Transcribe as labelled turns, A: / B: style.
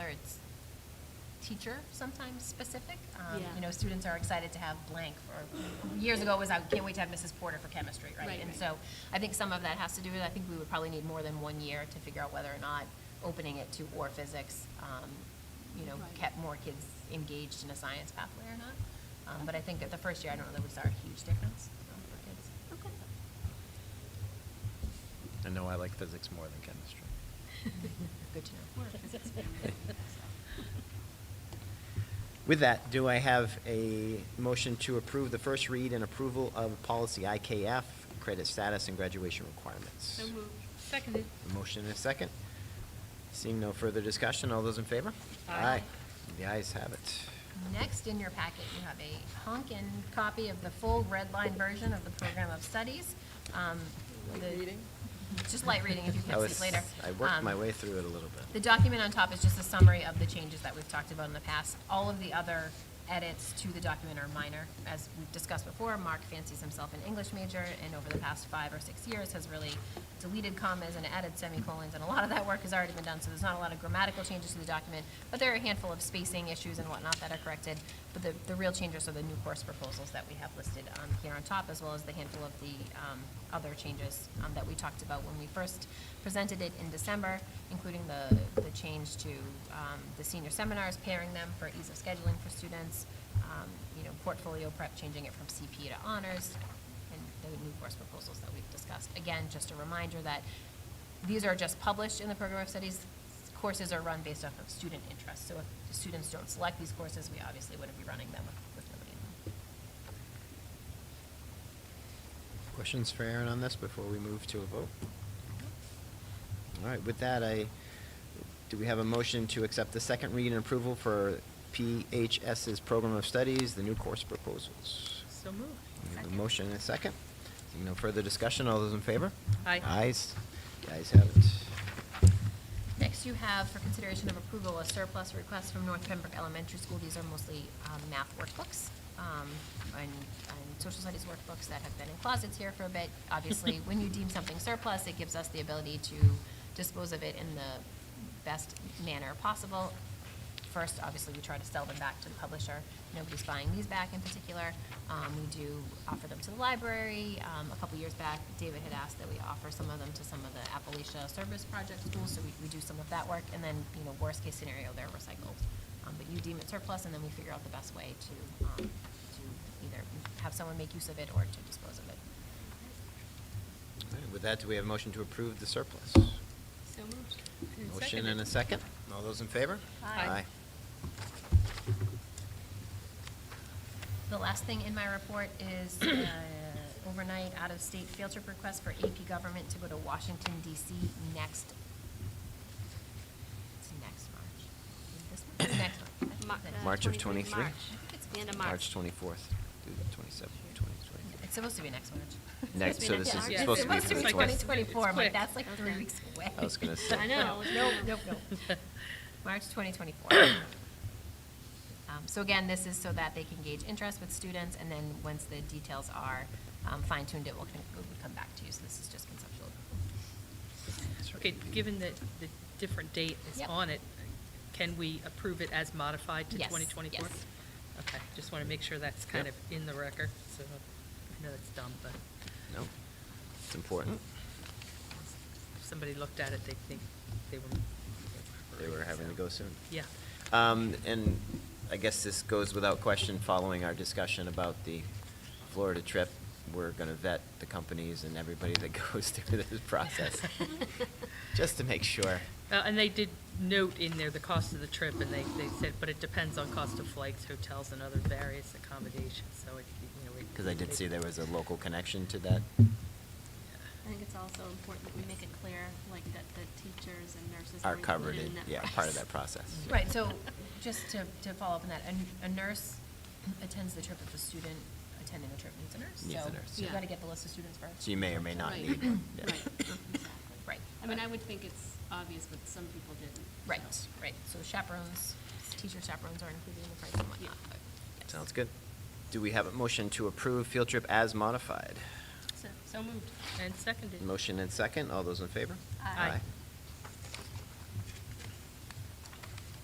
A: teacher sometimes specific. Um,
B: Yeah.
A: You know, students are excited to have blank for, years ago it was, I can't wait to have Mrs. Porter for chemistry, right?
B: Right,
A: And
B: right.
A: so I think some of that has to do with, I think we would probably need more than one year to figure out whether or not opening it to or physics, um, you know,
B: Right.
A: kept more kids engaged in a science pathway or not. Um, But I think at the first year, I don't know that we saw a huge difference um, for kids.
C: I know I like physics more than chemistry.
A: Good to know.
C: With that, do I have a motion to approve the first read and approval of policy IKF, credit status and graduation requirements?
B: So moved. Seconded.
C: A Motion and a second. Seeing no further discussion, all those in favor?
B: Aye.
C: The ayes have it.
A: Next in your packet, you have a honkin' copy of the full red line version of the program of studies. Um, the- Just light reading, if you
C: I
A: can
C: was-
A: see later.
C: I worked
A: Um,
C: my way through it a little
A: The
C: bit.
A: document on top is just a summary of the changes that we've talked about in the past. All of the other edits to the document are minor. As we've discussed before, Mark fancies himself an English major, and over the past five or six years has really deleted commas and added semicolons, and a lot of that work has already been done, so there's not a lot of grammatical changes to the document, but there are a handful of spacing issues and whatnot that are corrected. But the, the real changes are the new course proposals that we have listed um, here on top, as well as the handful of the um, other changes um, that we talked about when we first presented it in December, including the, the change to um, the senior seminars, pairing them for ease of scheduling for students, um, you know, portfolio prep, changing it from CP to honors, and the new course proposals that we've discussed. Again, just a reminder that these are just published in the program of studies. Courses are run based off of student interest, so if the students don't select these courses, we obviously wouldn't be running them with- with nobody in them.
C: Questions for Aaron on this before we move to a vote? All right, with that, I, do we have a motion to accept the second read and approval for PHS's Program of Studies, the new course proposals?
B: So moved.
C: We have a motion and a second. Seeing no further discussion, all those in favor?
B: Aye.
C: Ayes, the ayes have it.
A: Next, you have for consideration of approval, a surplus request from North Pembroke Elementary School. These are mostly um, math workbooks um, and and social studies workbooks that have been in closets here for a bit. Obviously, when you deem something surplus, it gives us the ability to dispose of it in the best manner possible. First, obviously, we try to sell them back to the publisher. Nobody's buying these back in particular. Um, we do offer them to the library. Um, a couple years back, David had asked that we offer some of them to some of the Appalachia Service Project schools, so we, we do some of that work, and then, you know, worst case scenario, they're recycled. Um, but you deem it surplus, and then we figure out the best way to, um, to either have someone make use of it or to dispose of it.
C: All right, With that, do we have a motion to approve the surplus?
B: So moved.
C: Motion and a second. All those in favor?
B: Aye.
A: The last thing in my report is uh, overnight out-of-state field trip request for AP Government to go to Washington DC next, it's next March. Is it This month, It's next month. I think it's next
C: March of
A: month.
C: 23?
B: uh, March.
A: It's
B: The end of
C: March
B: March.
C: 24th through the 27th, 2023.
A: It's supposed to be next March.
C: Next-
B: so this is
A: Yeah,
B: supposed to be
A: It's
B: for the
A: supposed to be
B: 20.
A: twenty twenty-four,
B: It's
A: I'm like,
B: quick.
A: that's like three
B: Okay.
A: weeks away.
C: I was gonna say.
B: I know.
A: Nope, nope, nope. March 2024. Um, So again, this is so that they can gauge interest with students, and then once the details are um, fine-tuned, it will con- it will come back to you, so this is just conceptual.
D: Okay, given that the different date is
A: Yep.
D: on it, can we approve it as modified to
A: Yes,
D: 2024?
A: yes.
D: Okay, just want to make sure that's kind of
C: Yep.
D: in the record, so I know it's dumb, but
C: No, it's important.
D: if somebody looked at it, they'd think they were.
C: They were having to go soon.
D: Yeah.
C: Um, and I guess this goes without question, following our discussion about the Florida trip, we're gonna vet the companies and everybody that goes through this process, just to make sure.
D: Uh, And they did note in there the cost of the trip, and they, they said, but it depends on cost of flights, hotels, and other various accommodations, so it, you know. it-
C: Because I did see there was a local connection to that.
B: I think it's also important that we make it clear, like, that the teachers and nurses
C: Are
B: are
C: covered
B: included
C: in-
B: in that price.
C: yeah, part of that process.
A: Right, so just to, to follow up on that, a- a nurse attends the trip if the student attending the trip needs a nurse.
C: Needs a nurse,
A: So you
B: yeah.
A: gotta get the list of students first.
C: So you may or may not
B: Right.
C: need one. yeah.
B: Right, exactly.
A: Right.
B: I mean, I would think it's obvious, but some people didn't.
A: Right,
B: so.
A: right, so chaperones, teacher chaperones are included in the price and whatnot, but yes.
C: Sounds good. Do we have a motion to approve field trip as modified?
D: So- So moved and seconded.
C: Motion and second, all those in favor?
D: Aye. Aye.